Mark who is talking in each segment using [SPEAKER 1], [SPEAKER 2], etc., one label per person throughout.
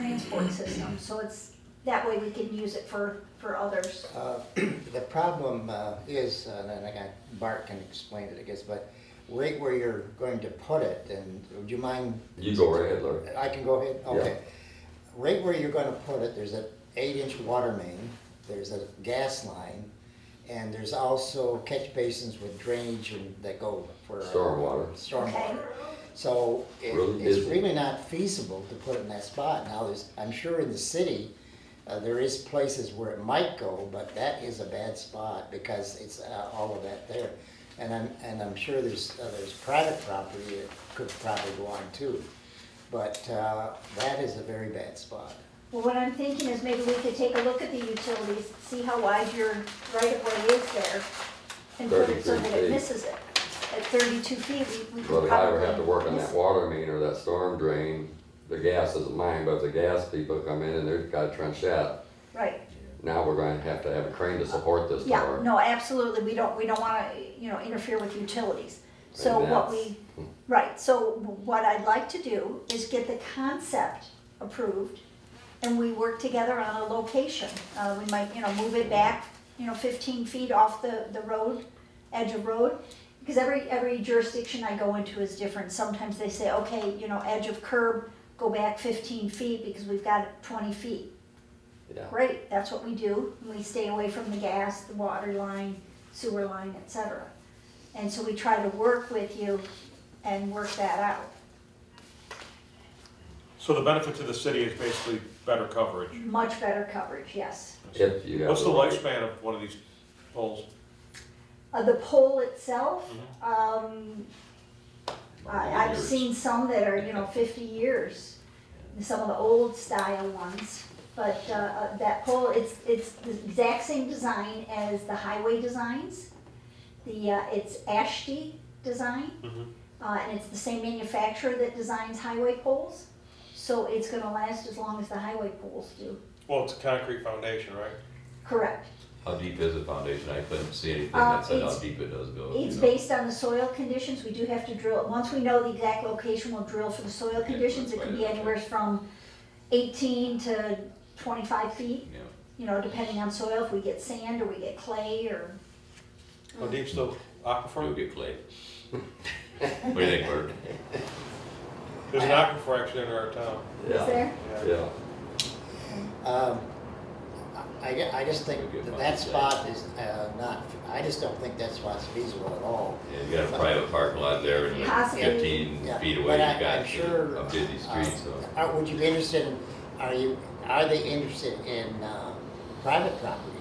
[SPEAKER 1] transport system, so it's, that way we can use it for, for others.
[SPEAKER 2] Uh, The problem uh, is, uh, and I got, Bart can explain it, I guess, but right where you're going to put it, and would you mind?
[SPEAKER 3] You go right ahead, Larry.
[SPEAKER 2] I can go ahead,
[SPEAKER 3] Yeah.
[SPEAKER 2] okay. Right where you're gonna put it, there's an eight-inch water main, there's a gas line, and there's also catch basins with drainage and that go for. uh,
[SPEAKER 3] Stormwater.
[SPEAKER 2] Stormwater. So it-
[SPEAKER 3] Really
[SPEAKER 2] it's
[SPEAKER 3] busy.
[SPEAKER 2] really not feasible to put it in that spot. Now, there's, I'm sure in the city, uh, there is places where it might go, but that is a bad spot because it's uh, all of that there. And I'm, and I'm sure there's, uh, there's private property that could probably go on too. But uh, that is a very bad spot.
[SPEAKER 1] Well, what I'm thinking is maybe we could take a look at the utilities, see how wide your right of way is there, and put it so that
[SPEAKER 3] 33
[SPEAKER 1] it
[SPEAKER 3] feet.
[SPEAKER 1] misses it. At thirty-two feet, we, we
[SPEAKER 3] Well,
[SPEAKER 1] could
[SPEAKER 3] the highway have to
[SPEAKER 1] probably
[SPEAKER 3] work on
[SPEAKER 1] miss
[SPEAKER 3] that
[SPEAKER 1] it.
[SPEAKER 3] water main or that storm drain. The gas isn't mine, but if the gas people come in and they've got a trench that,
[SPEAKER 1] Right,
[SPEAKER 3] now we're gonna have to have a crane to support this
[SPEAKER 1] yeah,
[SPEAKER 3] tower.
[SPEAKER 1] no, absolutely, we don't, we don't wanna, you know, interfere with utilities. So
[SPEAKER 3] And
[SPEAKER 1] what
[SPEAKER 3] that's-
[SPEAKER 1] we, right, so what I'd like to do is get the concept approved, and we work together on a location. Uh, we might, you know, move it back, you know, fifteen feet off the, the road, edge of road. Because every, every jurisdiction I go into is different. Sometimes they say, okay, you know, edge of curb, go back fifteen feet because we've got twenty feet.
[SPEAKER 3] Yeah.
[SPEAKER 1] Great, that's what we do, and we stay away from the gas, the water line, sewer line, et cetera. And so we try to work with you and work that out.
[SPEAKER 4] So the benefit to the city is basically better coverage.
[SPEAKER 1] Much better coverage, yes.
[SPEAKER 3] If you have.
[SPEAKER 4] What's the
[SPEAKER 3] right-
[SPEAKER 4] lifespan of one of these poles?
[SPEAKER 1] Uh, the pole itself, um, I, I've
[SPEAKER 3] Years.
[SPEAKER 1] seen some that are, you know, fifty years, some of the old style ones. But, uh, uh, that pole, it's, it's the exact same design as the highway designs. The, uh, it's Ashby design.
[SPEAKER 4] Mhm.
[SPEAKER 1] Uh, and it's the same manufacturer that designs highway poles, so it's gonna last as long as the highway poles do.
[SPEAKER 4] Well, it's a concrete foundation, right?
[SPEAKER 1] Correct.
[SPEAKER 5] How deep is the foundation? I couldn't see anything
[SPEAKER 1] Uh,
[SPEAKER 5] that said how
[SPEAKER 1] it's-
[SPEAKER 5] deep it does go.
[SPEAKER 1] It's
[SPEAKER 5] you know.
[SPEAKER 1] based on the soil conditions, we do have to drill, once we know the exact location, we'll drill for the soil conditions, it
[SPEAKER 5] that's
[SPEAKER 1] can
[SPEAKER 5] why
[SPEAKER 1] be
[SPEAKER 5] I-
[SPEAKER 1] anywhere from eighteen to twenty-five feet,
[SPEAKER 5] Yeah.
[SPEAKER 1] you know, depending on soil, if we get sand or we get clay or.
[SPEAKER 4] How deep's the
[SPEAKER 5] You'll
[SPEAKER 4] aquifer?
[SPEAKER 5] get clay. What do you think, Bert?
[SPEAKER 4] There's an aquifer actually in our town.
[SPEAKER 1] Is
[SPEAKER 3] Yeah,
[SPEAKER 1] there?
[SPEAKER 3] yeah.
[SPEAKER 2] Um, I, I- I just think
[SPEAKER 5] Good
[SPEAKER 2] that
[SPEAKER 5] point,
[SPEAKER 2] that
[SPEAKER 5] yeah.
[SPEAKER 2] spot is uh, not, I just don't think that spot's feasible at all.
[SPEAKER 5] Yeah, you got a private parking lot there and like
[SPEAKER 1] Possibly.
[SPEAKER 5] fifteen
[SPEAKER 2] Yeah,
[SPEAKER 5] feet away,
[SPEAKER 2] but
[SPEAKER 5] you
[SPEAKER 2] I- I'm
[SPEAKER 5] got
[SPEAKER 2] sure,
[SPEAKER 5] a busy
[SPEAKER 2] uh,
[SPEAKER 5] street, so.
[SPEAKER 2] Are, would you be interested in, are you, are they interested in, uh, private property?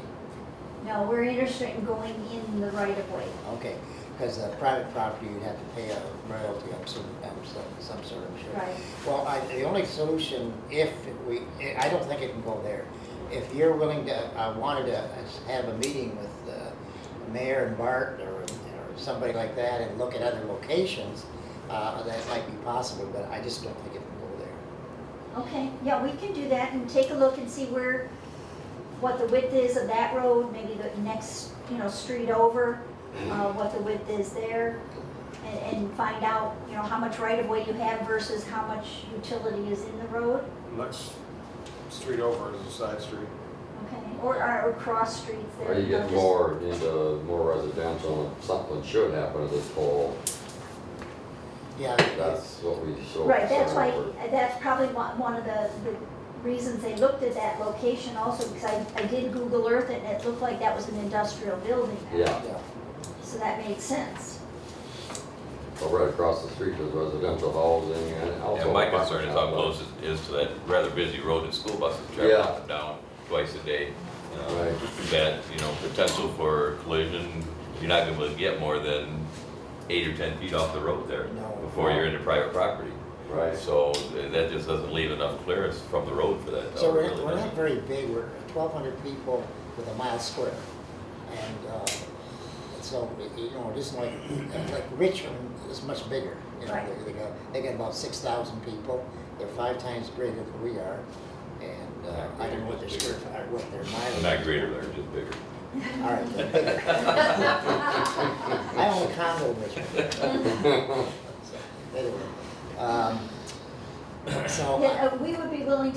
[SPEAKER 1] No, we're interested in going in the right of way.
[SPEAKER 2] Okay, because, uh, private property, you'd have to pay a royalty of some, of some, some sort, I'm sure.
[SPEAKER 1] Right.
[SPEAKER 2] Well, I, the only solution, if we, eh, I don't think it can go there. If you're willing to, I wanted to uh, have a meeting with the mayor and Bart or, or somebody like that and look at other locations, uh, that might be possible, but I just don't think it can go there.
[SPEAKER 1] Okay, yeah, we can do that and take a look and see where, what the width is of that road, maybe the next, you know, street over, uh, what the width is there. And, and find out, you know, how much right of way you have versus how much utility is in the road,
[SPEAKER 4] Next street over is a side street.
[SPEAKER 1] okay? Or, or, or cross streets there.
[SPEAKER 3] Or you
[SPEAKER 1] know,
[SPEAKER 3] get
[SPEAKER 1] just-
[SPEAKER 3] more into more residential, and something should happen to this pole.
[SPEAKER 2] Yeah.
[SPEAKER 3] That's what we show.
[SPEAKER 1] Right, that's why,
[SPEAKER 3] concern over.
[SPEAKER 1] that's probably one, one of the, the reasons they looked at that location also, because I, I did Google Earth it, and it looked like that was an industrial building.
[SPEAKER 3] Yeah,
[SPEAKER 2] Yeah.
[SPEAKER 1] So that made sense.
[SPEAKER 3] but right across the street is residential housing and also.
[SPEAKER 5] And my
[SPEAKER 3] apartment
[SPEAKER 5] concern is how
[SPEAKER 3] complex.
[SPEAKER 5] close it is to that rather busy road that school buses travel
[SPEAKER 3] Yeah.
[SPEAKER 5] up and down twice a day. you know,
[SPEAKER 3] Right.
[SPEAKER 5] That, you know, potential for collision, you're not gonna be able to get more than eight or ten feet off the road there
[SPEAKER 2] No.
[SPEAKER 5] before you're into private property.
[SPEAKER 3] Right,
[SPEAKER 5] So th- that just doesn't leave enough clearance from the road for that.
[SPEAKER 2] So
[SPEAKER 5] tower,
[SPEAKER 2] we're,
[SPEAKER 5] really,
[SPEAKER 2] we're
[SPEAKER 5] does
[SPEAKER 2] not
[SPEAKER 5] it?
[SPEAKER 2] very big, we're twelve hundred people with a mile square. And, uh, so, you know, it isn't like, like Richmond is much bigger, you know,
[SPEAKER 1] Right.
[SPEAKER 2] they, they got, they got about six thousand people, they're five times greater than we are. And, uh, I don't know what their square, or what their mileage.
[SPEAKER 5] Not greater, they're just bigger.
[SPEAKER 2] All right, they're bigger. I own a condo in Richmond. So, Anyway, um, so.
[SPEAKER 1] Yeah, uh, we would be willing to